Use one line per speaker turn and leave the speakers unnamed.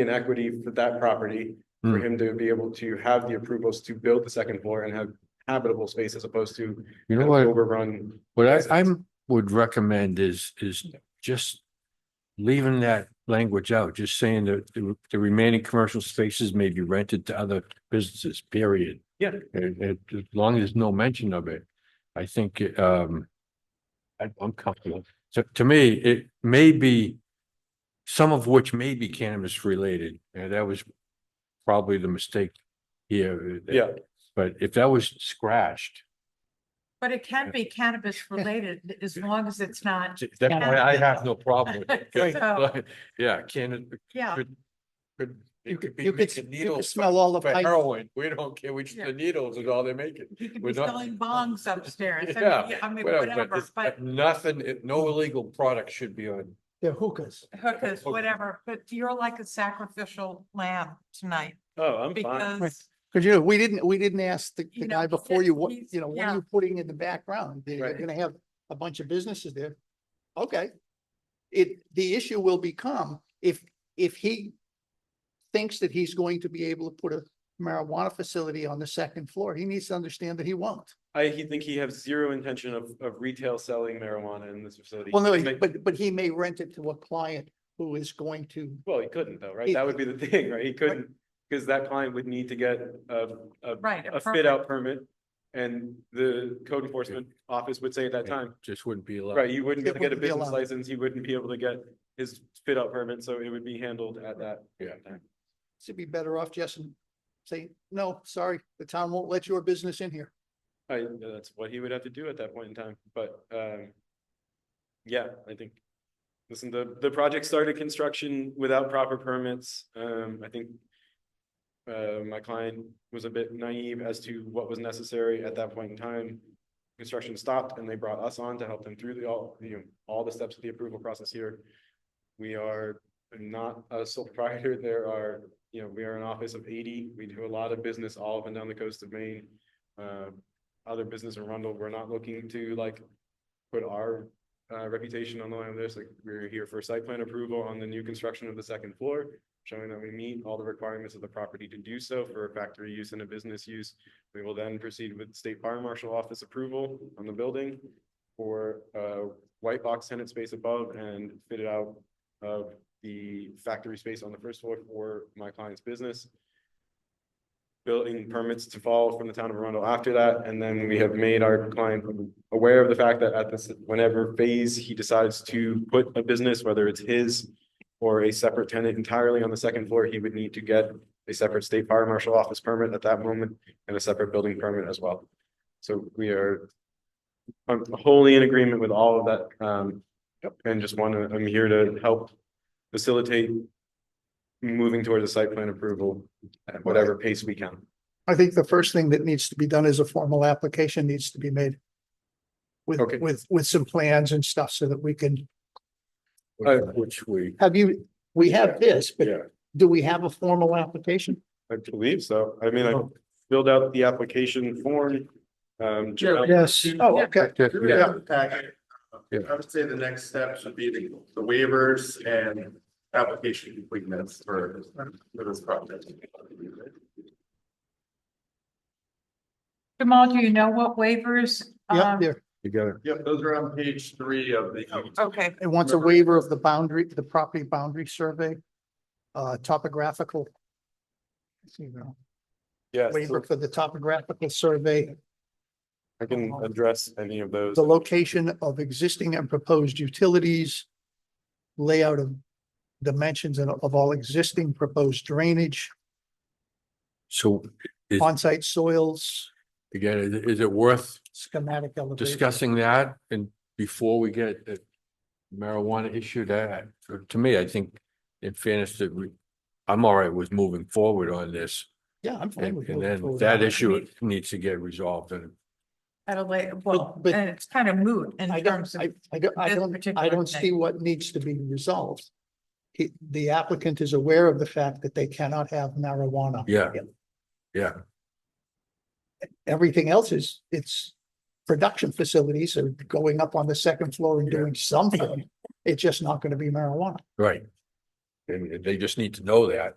in equity for that property. For
Hmm.
him to be able to have the approvals to build the second floor and have habitable space as opposed to
You
kind
know
of
what?
overrun.
What
Yes,
I,
it's-
I'm, would recommend is, is just leaving that language out, just saying that the the remaining commercial spaces may be rented to other businesses, period.
Yeah.
And, and as long as there's no mention of it, I think, um, I- I'm comfortable. To, to me, it may be, some of which may be cannabis related, and that was probably the mistake here.
Yeah.
But if that was scratched,
But it can be cannabis related as long as it's not,
That point, I have no problem with it.
So- Uh,
Yeah, can
yeah.
could, could,
You
it could
could,
be
you could,
making
you could
needles
smell all the
for
pipe.
heroin. We don't care, we just,
Yeah.
the needles is all they're making.
You could
We're
be
not-
selling bongs upstairs. I mean,
Yeah,
I mean,
whatever, but
whatever,
it's-
but
nothing, it- no illegal product should be on.
They're hookahs.
hookahs, whatever, but you're like a sacrificial lamb tonight
Oh, I'm fine.
because
Cause you know, we didn't, we didn't ask the,
You
the
know,
guy
he
before
said
you, what,
he's-
you know, what
yeah.
are you putting in the background? They're
Right.
gonna have a bunch of businesses there. Okay. It, the issue will become if, if he thinks that he's going to be able to put a marijuana facility on the second floor, he needs to understand that he won't.
I, he think he has zero intention of, of retail selling marijuana in this facility.
Well, no,
He's
he-
make-
but, but he may rent it to a client who is going to,
Well, he couldn't though, right?
He-
That would be the thing, right? He couldn't, because that client would need to get a, a,
Right, a
a
permit.
fit out permit. And the code enforcement office would say at that time,
Just wouldn't be allowed.
right, you wouldn't be
It
able to get a
wouldn't be
business
allowed.
license, he wouldn't be able to get his fit out permit, so it would be handled at that.
Yeah.
time.
to be better off just and say, no, sorry, the town won't let your business in here.
I, that's what he would have to do at that point in time, but, um, yeah, I think. Listen, the, the project started construction without proper permits, um, I think. Uh, my client was a bit naive as to what was necessary at that point in time. Construction stopped and they brought us on to help them through the, all, you know, all the steps of the approval process here. We are not a sole proprietor, there are, you know, we are an office of eighty, we do a lot of business all up and down the coast of Maine. Um, other business in Rundle, we're not looking to like put our uh reputation on the line of this, like we're here for site plan approval on the new construction of the second floor, showing that we meet all the requirements of the property to do so for a factory use and a business use. We will then proceed with state fire marshal office approval on the building for uh white box tenant space above and fit it out of the factory space on the first floor for my client's business building permits to follow from the town of Arundel after that, and then we have made our client aware of the fact that at this, whenever phase he decides to put a business, whether it's his or a separate tenant entirely on the second floor, he would need to get a separate state fire marshal office permit at that moment and a separate building permit as well. So we are I'm wholly in agreement with all of that, um, and just wanna, I'm here to help facilitate moving towards a site plan approval at whatever pace we can.
I think the first thing that needs to be done is a formal application needs to be made. With,
Okay.
with, with some plans and stuff so that we can,
Oh,
Which- Which we,
have you, we have this, but
yeah,
do we have a formal application?
I believe so. I mean, I filled out the application form. Um,
Yes. Oh, okay.
yeah,
Packet.
Yeah.
I would say the next steps would be the the waivers and application completeness for for this project.
Jamal, do you know what waivers?
Yeah,
um,
there.
you got it.
Yep, those are on page three of the.
Okay,
It wants a waiver of the boundary, the property boundary survey, uh, topographical. you know,
Yes,
Waiver for the topographical survey,
I can address any of those.
the location of existing and proposed utilities. Layout of dimensions and of all existing proposed drainage.
So Is-
On-site soils,
again, is- is it worth
schematic elevation.
discussing that and before we get the marijuana issue that, to me, I think in fairness that we, I'm all right with moving forward on this.
Yeah, I'm fine
And
with.
and
moving
then
forward
that
on
issue needs to get resolved and
at a later, well,
but-
and it's kind of moot in
I
terms
don't,
of.
I, I don't, I
this
don't, I
particular
don't
thing.
see what needs to be resolved. He, the applicant is aware of the fact that they cannot have marijuana.
Yeah. yeah,
Everything else is, it's production facilities are going up on the second floor and doing something. It's just not gonna be marijuana.
right. And they just need to know that.